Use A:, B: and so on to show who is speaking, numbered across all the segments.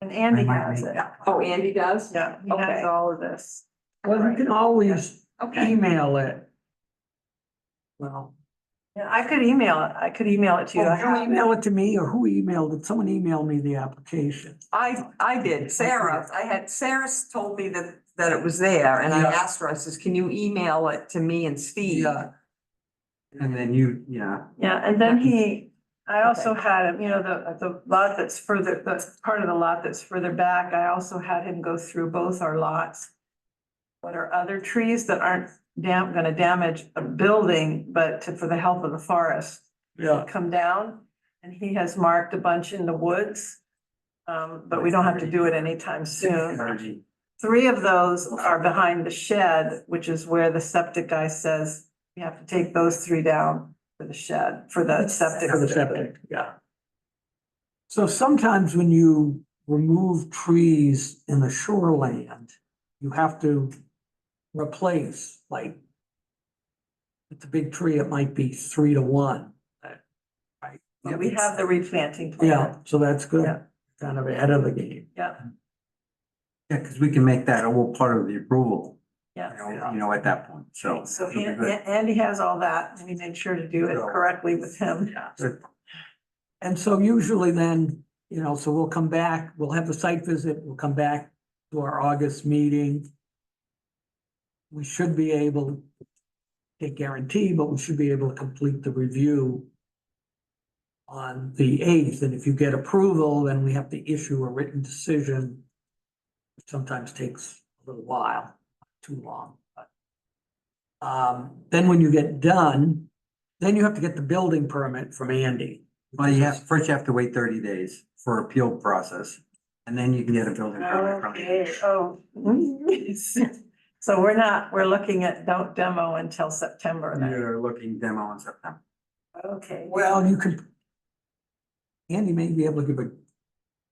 A: And Andy
B: Remind
A: has
B: me.
A: it.
C: Oh, Andy does?
A: Yeah, he has
C: Okay.
A: all of this.
B: Well, you can always
C: Okay,
B: email it. Well,
A: Yeah, I could email it. I could email it to you. I
B: oh, you
A: have-
B: email it to me or who emailed it? Someone emailed me the application.
C: I, I did, Sarah, I had, Sarah told me that, that it was there, and I
B: Yeah.
C: asked her, I says, can you email it to me and Steve?
B: Yeah. And then you, yeah.
A: Yeah, and then he, I also had him, you know, the, the lot that's further, the part of the lot that's further back, I also had him go through both our lots. What are other trees that aren't dam, gonna damage a building, but to- for the health of the forest?
B: Yeah.
A: come down, and he has marked a bunch in the woods. Um, but we don't have to do it anytime soon. Three of those are behind the shed, which is where the septic guy says we have to take those three down for the shed, for the septic.
B: For the septic, yeah. So sometimes when you remove trees in the shoreland, you have to replace, like, if it's a big tree, it might be three to one. Right?
A: But We have the replanting
B: Yeah,
A: plan.
B: so that's
A: Yeah.
B: good, kind of ahead of the game.
A: Yeah,
D: Yeah, because we can make that a whole part of the approval, you know,
A: yeah.
D: you know, at that point, so.
A: So
D: it'll be
A: An-
D: good.
A: An- Andy has all that, and we made sure to do it correctly with him.
D: Good.
B: And so usually then, you know, so we'll come back, we'll have the site visit, we'll come back to our August meeting. We should be able, can't guarantee, but we should be able to complete the review on the eighth, and if you get approval, then we have to issue a written decision. which Sometimes takes a little while, too long, but. Um, then when you get done, then you have to get the building permit from Andy.
D: Well, you have, first you have to wait thirty days for appeal process, and then you can get a building permit from
A: Okay,
D: it.
A: oh. So we're not, we're looking at don't demo until September then.
D: You're looking demo in September.
A: Okay.
B: Well, you could. Andy may be able to give a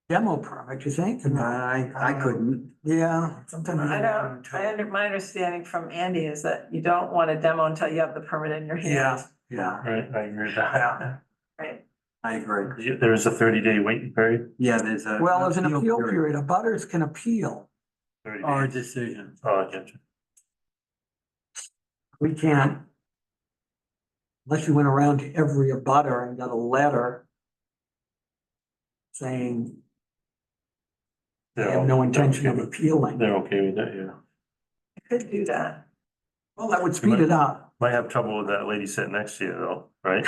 B: demo permit, you think?
D: I, I couldn't.
B: Yeah, sometimes.
A: I don't, I under, my understanding from Andy is that you don't want to demo until you have the permit in your hand.
B: Yeah.
D: Yeah,
E: Right, I agree with that.
A: Right.
D: I agree.
E: Yeah, There is a thirty day waiting period,
D: Yeah, there's a.
B: Well, there's an appeal period, a butters can appeal.
E: thirty
D: Or a
E: days.
D: decision.
E: Oh, I get you.
B: We can't. Unless you went around to every abutter and got a letter. Saying they have no intention of appealing.
E: They're okay with that, yeah.
A: You Could do that.
B: Well, that would speed it up.
E: Might have trouble with that lady sitting next to you though, right?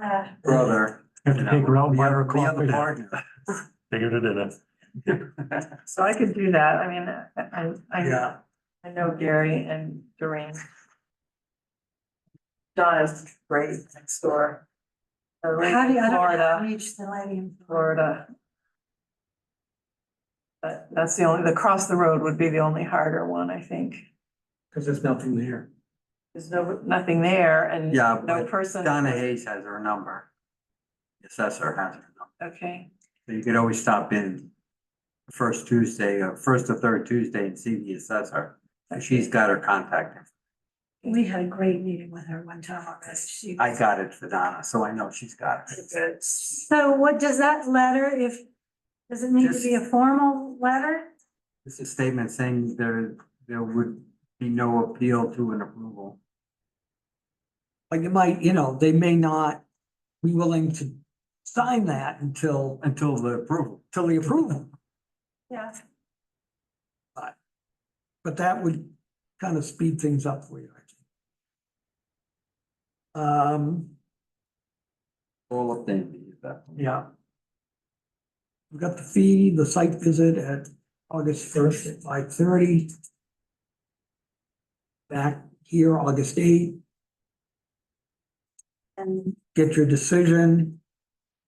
F: Uh,
D: Brother.
E: Have
D: you
E: to
D: know,
E: take her out
D: the
E: by
D: other-
E: her
D: the
E: coffee.
D: other partner.
E: Take her to dinner.
A: So I could do that. I mean, I, I,
B: Yeah.
A: I know Gary and Doreen. Donna's great next door. The lady
F: How do you,
A: in
F: I don't know how to
A: Florida,
F: reach the lady in Florida?
A: Florida. But that's the only, the cross the road would be the only harder one, I think.
B: Cause there's nothing there.
A: There's no, nothing there and
D: Yeah,
A: no
D: but
A: person.
D: Donna Hayes has her number. The Assessor has her number.
A: Okay.
D: So you could always stop in the first Tuesday, or first or third Tuesday and see the assessor. And She's got her contact. info.
F: We had a great meeting with her one time already. She.
D: I got it for Donna, so I know she's got it.
F: So what does that letter, if, does it need to be a formal letter?
D: It's a statement saying there, there would be no appeal to an approval.
B: Like it might, you know, they may not be willing to sign that until,
D: Until the approval.
B: until the approval.
A: Yeah.
B: But that would kind of speed things up for you, I think. Um,
D: All of them. at that point.
B: yeah. We've got the fee, the site visit at August first at five thirty. Back here, August eighth,
F: And
B: get your decision,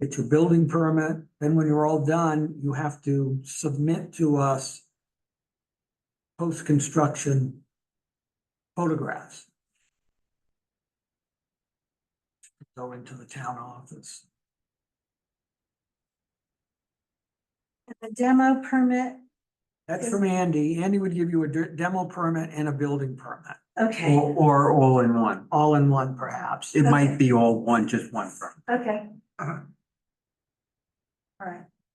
B: get your building permit, then when you're all done, you have to submit to us post-construction photographs. Go into the town office.
F: and the demo permit,
B: That's from Andy. Andy would give you a de- demo permit and a building permit,
F: okay,
D: Or, or all in one.
B: all in one perhaps.
D: It might be all one, just one firm.
F: okay. All right,